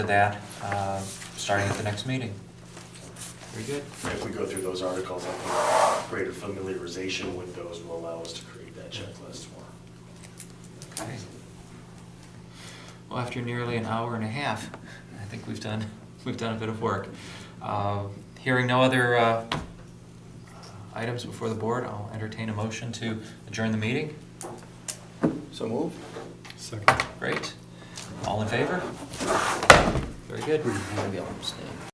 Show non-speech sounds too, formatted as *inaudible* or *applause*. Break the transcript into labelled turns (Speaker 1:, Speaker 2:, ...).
Speaker 1: for that, uh, starting at the next meeting. Very good.
Speaker 2: If we go through those articles, I think greater familiarization with those will allow us to create that checklist more.
Speaker 1: Okay. Well, after nearly an hour and a half, I think we've done, *laughs* we've done a bit of work. Uh, Hearing no other uh, items before the board, I'll entertain a motion to adjourn the meeting.
Speaker 2: So move.
Speaker 3: Second.
Speaker 1: Great. All in favor? Very good.